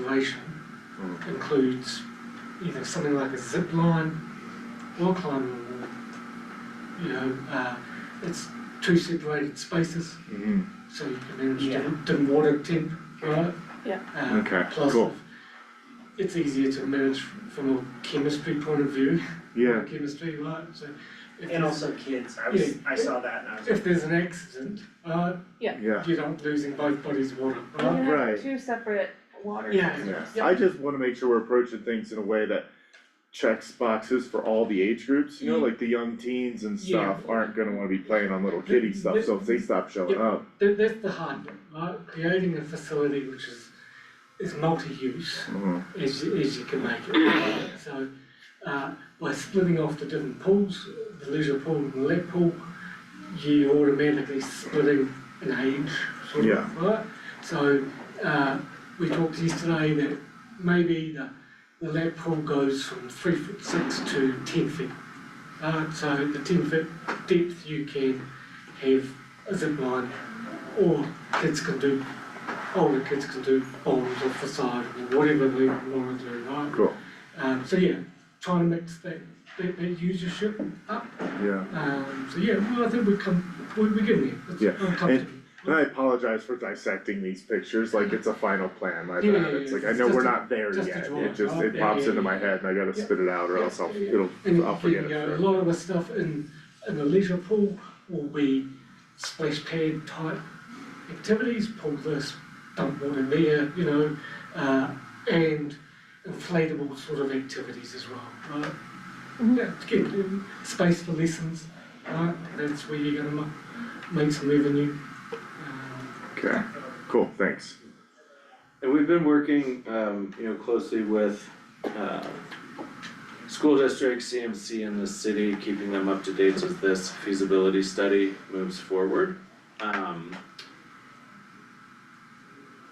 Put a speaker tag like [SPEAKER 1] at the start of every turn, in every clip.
[SPEAKER 1] conservation
[SPEAKER 2] Mm.
[SPEAKER 1] includes, you know, something like a zip line, wall climbing wall. You know, uh, it's two separated spaces,
[SPEAKER 2] Mhm.
[SPEAKER 1] so you can manage
[SPEAKER 3] Yeah.
[SPEAKER 1] different, different water temp, right?
[SPEAKER 3] Yeah.
[SPEAKER 1] Uh,
[SPEAKER 2] Okay,
[SPEAKER 1] plus
[SPEAKER 2] cool.
[SPEAKER 1] It's easier to manage from a chemistry point of view,
[SPEAKER 2] Yeah,
[SPEAKER 1] chemistry, right, so. if
[SPEAKER 4] And
[SPEAKER 1] there's-
[SPEAKER 4] also kids, I was, I saw that and I was.
[SPEAKER 1] If there's an accident, uh,
[SPEAKER 2] yeah,
[SPEAKER 1] you don't losing both bodies of water,
[SPEAKER 3] You
[SPEAKER 1] right?
[SPEAKER 2] Right.
[SPEAKER 3] have two separate water
[SPEAKER 1] Yeah.
[SPEAKER 2] yeah.
[SPEAKER 3] systems.
[SPEAKER 2] I just wanna make sure we're approaching things in a way that checks boxes for all the age groups, you know, like the young teens and
[SPEAKER 1] Mm-hmm. Yeah.
[SPEAKER 2] stuff aren't gonna wanna be playing on little kiddie stuff, so if they stop showing
[SPEAKER 1] Yeah.
[SPEAKER 2] up,
[SPEAKER 1] That, that's the hard bit, right? Creating a facility which is, is multi-use
[SPEAKER 2] mhm,
[SPEAKER 1] as you, as you can make it. So, uh, by splitting off the different pools, the leisure pool and the lap pool, you automatically splitting an age, sort of,
[SPEAKER 2] Yeah.
[SPEAKER 1] right? So, uh, we talked yesterday that maybe the, the lap pool goes from three foot six to ten feet. Uh, so the ten foot depth you can have a zip line, or kids can do, older kids can do bowls or facade or whatever they want to do, right?
[SPEAKER 2] cool,
[SPEAKER 1] Um, so yeah, trying to mix that, that, that usership up,
[SPEAKER 2] yeah.
[SPEAKER 1] um, so yeah, well, I think we come, we, we get there, it's,
[SPEAKER 2] Yeah,
[SPEAKER 1] I'm comfortable.
[SPEAKER 2] And I apologize for dissecting these pictures, like it's a final plan, my
[SPEAKER 1] Yeah, yeah,
[SPEAKER 2] bad, it's
[SPEAKER 1] yeah,
[SPEAKER 2] like, I
[SPEAKER 1] it's
[SPEAKER 2] know
[SPEAKER 1] just
[SPEAKER 2] we're
[SPEAKER 1] a-
[SPEAKER 2] not there
[SPEAKER 1] just a
[SPEAKER 2] yet,
[SPEAKER 1] drawing.
[SPEAKER 2] it just,
[SPEAKER 1] Oh,
[SPEAKER 2] it
[SPEAKER 1] yeah,
[SPEAKER 2] pops
[SPEAKER 1] yeah,
[SPEAKER 2] into my
[SPEAKER 1] yeah.
[SPEAKER 2] head and I gotta
[SPEAKER 1] Yeah.
[SPEAKER 2] spit it out or
[SPEAKER 1] Yeah,
[SPEAKER 2] else I'll,
[SPEAKER 1] yeah.
[SPEAKER 2] it'll,
[SPEAKER 1] And
[SPEAKER 2] I'll
[SPEAKER 1] you
[SPEAKER 2] forget it.
[SPEAKER 1] know, a lot of the stuff in, in the leisure pool will be splash pad type activities, pull this, dump water there, you know, uh, and inflatable sort of activities as well, right? Yeah, to get um, space for lessons, right, that's where you're gonna ma- make some revenue. Um,
[SPEAKER 2] Okay, cool, thanks.
[SPEAKER 5] And we've been working, um, you know, closely with, uh, school districts, CMC and the city, keeping them up to date as this feasibility study moves forward. Um,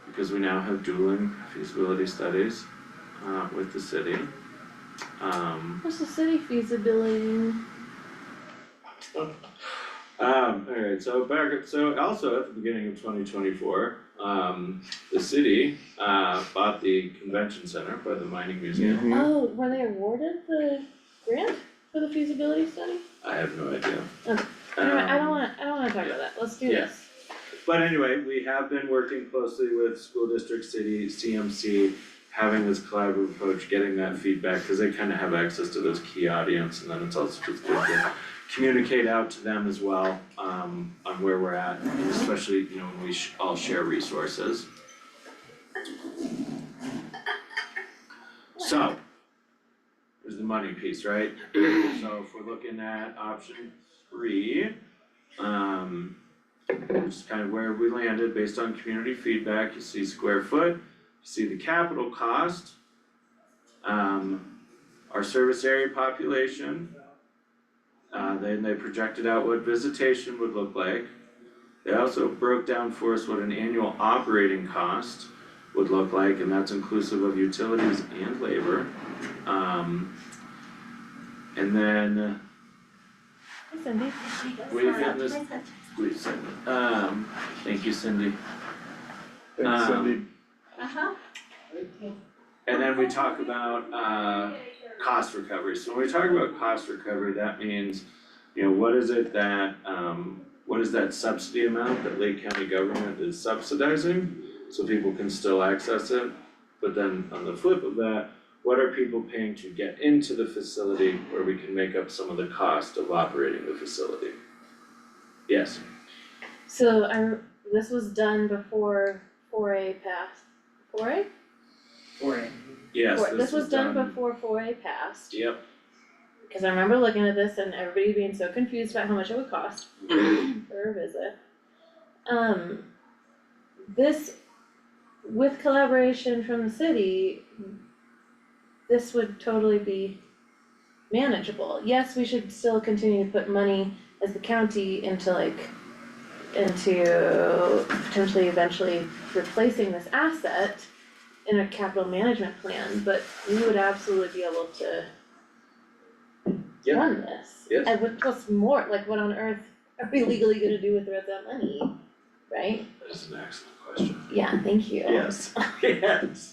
[SPEAKER 5] because we now have dueling feasibility studies, uh, with the city. Um,
[SPEAKER 3] What's the city feasibility?
[SPEAKER 5] Hmm? Um, alright, so back, so also at the beginning of twenty twenty-four, um, the city, uh, bought the convention center by the mining museum.
[SPEAKER 2] Mhm.
[SPEAKER 3] Oh, were they awarded the grant for the feasibility study?
[SPEAKER 5] I have no idea.
[SPEAKER 3] Okay. I don't, I don't
[SPEAKER 5] Um,
[SPEAKER 3] wanna, I don't wanna talk about that, let's do
[SPEAKER 5] yeah.
[SPEAKER 3] this.
[SPEAKER 5] But anyway, we have been working closely with school district, city, CMC, having this collaborative approach, getting that feedback, cause they kinda have access to those key audience, and then it's also just good to communicate out to them as well, um, on where we're at, and especially, you know, when we sh- all share resources. So, there's the money piece, right? So if we're looking at option three, um, which is kind of where we landed based on community feedback, you see square foot, you see the capital cost. Um, our service area population. Uh, then they projected out what visitation would look like. They also broke down for us what an annual operating cost would look like, and that's inclusive of utilities and labor. Um, and then
[SPEAKER 3] Hey Cindy,
[SPEAKER 5] we've got this, wait a second, um, thank you Cindy.
[SPEAKER 2] Thanks,
[SPEAKER 5] Um,
[SPEAKER 2] Cindy.
[SPEAKER 6] Uh-huh.
[SPEAKER 5] And then we talk about uh cost recovery, so when we talk about cost recovery, that means, you know, what is it that um, what is that subsidy amount that Lake County government is subsidizing? So people can still access it, but then on the flip of that, what are people paying to get into the facility where we can make up some of the cost of operating the facility? Yes,
[SPEAKER 3] so I, re- this was done before four A passed, four A?
[SPEAKER 4] For it.
[SPEAKER 5] yes,
[SPEAKER 3] Four-
[SPEAKER 5] this was done.
[SPEAKER 3] done before four A passed.
[SPEAKER 5] Yep,
[SPEAKER 3] Cause I remember looking at this and everybody being so confused about how much it would cost for a visit. Um, this, with collaboration from the city, this would totally be manageable. Yes, we should still continue to put money as the county into like, into potentially eventually replacing this asset in a capital management plan, but we would absolutely be able to
[SPEAKER 5] Yeah.
[SPEAKER 3] run this.
[SPEAKER 5] Yes.
[SPEAKER 3] And what, what's more, like what on earth are we legally gonna do with the rest of that money, right?
[SPEAKER 5] that is an excellent question.
[SPEAKER 3] Yeah, thank you.
[SPEAKER 5] Yes, yes.